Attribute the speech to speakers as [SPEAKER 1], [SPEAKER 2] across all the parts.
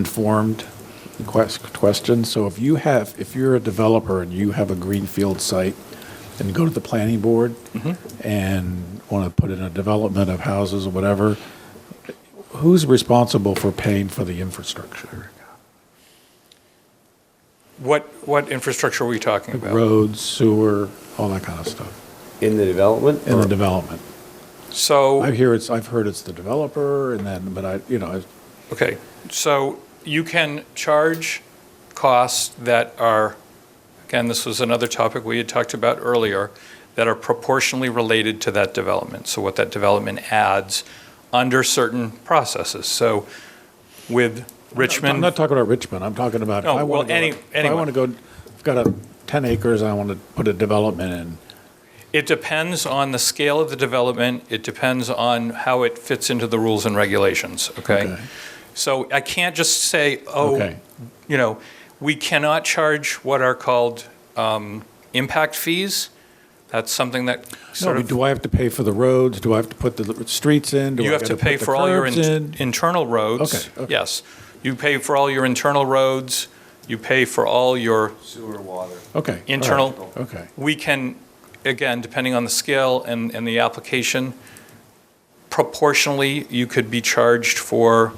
[SPEAKER 1] uninformed quest- question. So if you have, if you're a developer and you have a greenfield site and go to the planning board
[SPEAKER 2] Mm-hmm.
[SPEAKER 1] and want to put in a development of houses or whatever, who's responsible for paying for the infrastructure?
[SPEAKER 2] What, what infrastructure are we talking about?
[SPEAKER 1] Roads, sewer, all that kind of stuff
[SPEAKER 3] In the development?
[SPEAKER 1] in the development. I
[SPEAKER 2] So,
[SPEAKER 1] hear it's, I've heard it's the developer and then, but I, you know,
[SPEAKER 2] okay, so you can charge costs that are, again, this was another topic we had talked about earlier, that are proportionally related to that development, so what that development adds under certain processes. So with
[SPEAKER 1] I'm
[SPEAKER 2] Richmond,
[SPEAKER 1] not talking about Richmond, I'm talking about. if
[SPEAKER 2] No,
[SPEAKER 1] I wanna
[SPEAKER 2] well,
[SPEAKER 1] go to-
[SPEAKER 2] any-
[SPEAKER 1] if I
[SPEAKER 2] anyone.
[SPEAKER 1] want to go, I've got a 10 acres, I want to put a development in.
[SPEAKER 2] It depends on the scale of the development. It depends on how it fits into the rules and regulations, okay?
[SPEAKER 1] Okay.
[SPEAKER 2] So I can't just say, oh,
[SPEAKER 1] Okay.
[SPEAKER 2] you know, we cannot charge what are called um, impact fees. That's something that
[SPEAKER 1] No,
[SPEAKER 2] sort
[SPEAKER 1] but
[SPEAKER 2] of,
[SPEAKER 1] do I have to pay for the roads? Do I have to put the streets in? Do I
[SPEAKER 2] you have
[SPEAKER 1] gotta
[SPEAKER 2] to
[SPEAKER 1] put
[SPEAKER 2] pay
[SPEAKER 1] the
[SPEAKER 2] for all your
[SPEAKER 1] curbs
[SPEAKER 2] in-
[SPEAKER 1] in?
[SPEAKER 2] internal roads.
[SPEAKER 1] Okay, okay.
[SPEAKER 2] Yes. You pay for all your internal roads. You pay for all your
[SPEAKER 3] Sewer, water.
[SPEAKER 1] Okay. all right,
[SPEAKER 2] internal-
[SPEAKER 1] Okay.
[SPEAKER 2] we can, again, depending on the scale and, and the application, proportionally, you could be charged for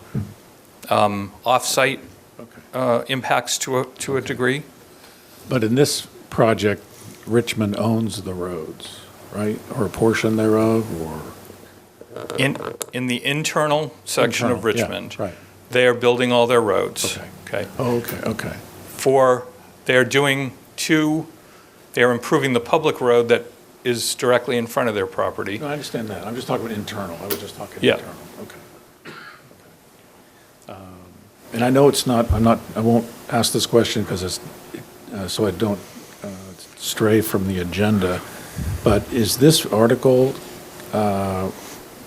[SPEAKER 2] um, off-site
[SPEAKER 1] Okay.
[SPEAKER 2] uh, impacts to a, to a degree.
[SPEAKER 1] But in this project, Richmond owns the roads, right? Or a portion thereof, or?
[SPEAKER 2] In, in the internal section of
[SPEAKER 1] Internal, yeah,
[SPEAKER 2] Richmond,
[SPEAKER 1] Right.
[SPEAKER 2] they are building all their roads.
[SPEAKER 1] Okay.
[SPEAKER 2] Okay.
[SPEAKER 1] Oh, okay, okay.
[SPEAKER 2] For, they're doing two, they're improving the public road that is directly in front of their property.
[SPEAKER 1] No, I understand that. I'm just talking about internal. I was just talking
[SPEAKER 2] Yeah.
[SPEAKER 1] internal. Okay. Um, And I know it's not, I'm not, I won't ask this question because it's, uh, so I don't uh, stray from the agenda, but is this article, uh,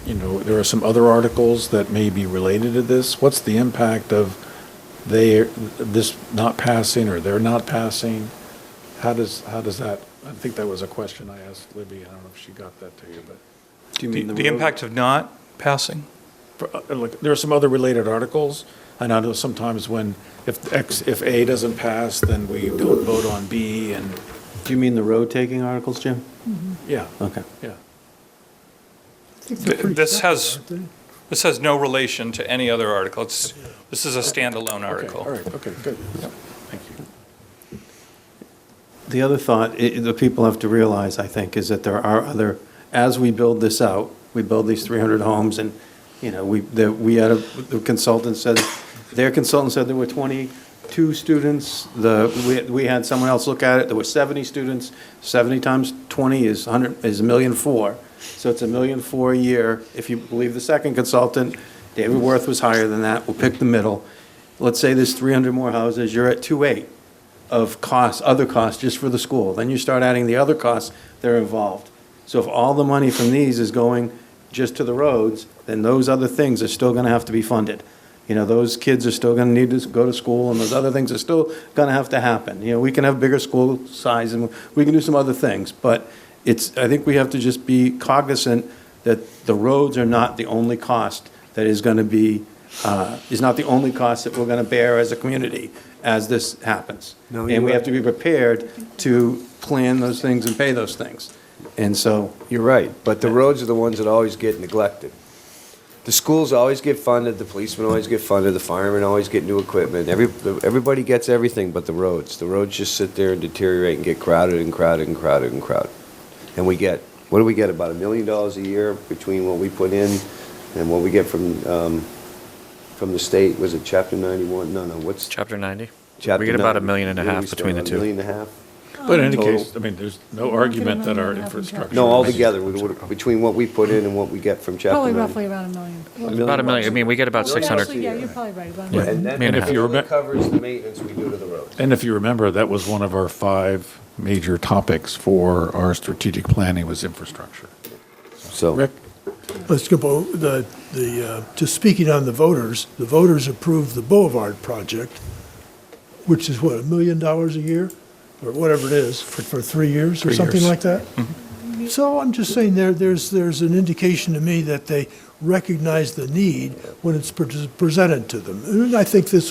[SPEAKER 1] you know, there are some other articles that may be related to this. What's the impact of they, this not passing or they're not passing? How does, how does that, I think that was a question I asked Libby. I don't know if she got that to you, but.
[SPEAKER 3] Do you
[SPEAKER 2] The
[SPEAKER 3] mean the road?
[SPEAKER 2] the impact of not passing?
[SPEAKER 1] for, uh, like, there are some other related articles, and I know sometimes when, if X, if A doesn't pass, then we don't vote on B, and,
[SPEAKER 3] Do you mean the road taking articles, Jim?
[SPEAKER 1] yeah,
[SPEAKER 3] Okay.
[SPEAKER 1] yeah.
[SPEAKER 2] Th- This has, this has no relation to any other article. It's, this is a standalone
[SPEAKER 1] Okay, all
[SPEAKER 2] article.
[SPEAKER 1] right, okay, good, thank you.
[SPEAKER 3] The other thought, i- the people have to realize, I think, is that there are other, as we build this out, we build these 300 homes, and, you know, we, that we had a, the consultant said, their consultant said there were 22 students, the, we, we had someone else look at it, there were 70 students, 70 times 20 is 100, is a million four, so it's a million four a year, if you believe the second consultant, David Worth was higher than that, we'll pick the middle. Let's say there's 300 more houses, you're at 2.8 of costs, other costs just for the school. Then you start adding the other costs that are involved. So if all the money from these is going just to the roads, then those other things are still gonna have to be funded. You know, those kids are still gonna need to go to school, and those other things are still gonna have to happen. You know, we can have bigger school size, and we can do some other things, but it's, I think we have to just be cognizant that the roads are not the only cost that is gonna be, uh, is not the only cost that we're gonna bear as a community as this happens.
[SPEAKER 4] No,
[SPEAKER 3] And we
[SPEAKER 4] you're
[SPEAKER 3] have to be prepared to plan those things and pay those things. And so,
[SPEAKER 4] You're right, but the roads are the ones that always get neglected. The schools always get funded, the policemen always get funded, the firemen always get new equipment. Every, everybody gets everything but the roads. The roads just sit there and deteriorate and get crowded and crowded and crowded and crowded. And we get, what do we get, about a million dollars a year between what we put in and what we get from, um, from the state? Was it chapter ninety-one? No, no, what's?
[SPEAKER 5] Chapter 90?
[SPEAKER 4] Chapter
[SPEAKER 5] We get about a
[SPEAKER 4] 90.
[SPEAKER 5] million and a
[SPEAKER 4] What do we
[SPEAKER 5] half
[SPEAKER 4] spend,
[SPEAKER 5] between the
[SPEAKER 4] a
[SPEAKER 5] two.
[SPEAKER 4] Million and a half?
[SPEAKER 1] But in any
[SPEAKER 4] Total.
[SPEAKER 1] case, I mean, there's no
[SPEAKER 6] We're looking at
[SPEAKER 1] argument
[SPEAKER 6] a
[SPEAKER 1] that our
[SPEAKER 6] million and a half in
[SPEAKER 1] infrastructure.
[SPEAKER 4] No,
[SPEAKER 6] Sure.
[SPEAKER 4] altogether, we- we- between what we put in and what we get from chapter
[SPEAKER 6] Probably
[SPEAKER 4] ninety.
[SPEAKER 6] roughly around a million.
[SPEAKER 5] About a million, I mean, we get about
[SPEAKER 6] Well,
[SPEAKER 5] 600.
[SPEAKER 6] actually, Yeah, you're probably right, about a
[SPEAKER 1] Yeah.
[SPEAKER 6] million.
[SPEAKER 4] And
[SPEAKER 5] Man,
[SPEAKER 4] that
[SPEAKER 5] if
[SPEAKER 1] you
[SPEAKER 4] only
[SPEAKER 1] remem-
[SPEAKER 4] covers the maintenance we do to the roads.
[SPEAKER 1] And if you remember, that was one of our five major topics for our strategic planning was infrastructure.
[SPEAKER 4] So,
[SPEAKER 1] Rick?
[SPEAKER 7] Let's go, bo- the, the, uh, just speaking on the voters, the voters approved the Boulevard project, which is what, a million dollars a year? Or whatever it is, for, for three years or
[SPEAKER 1] Three
[SPEAKER 7] something
[SPEAKER 1] years.
[SPEAKER 7] like that? So I'm just saying there, there's, there's an indication to me that they recognize the need when it's pre- presented to them. And I think this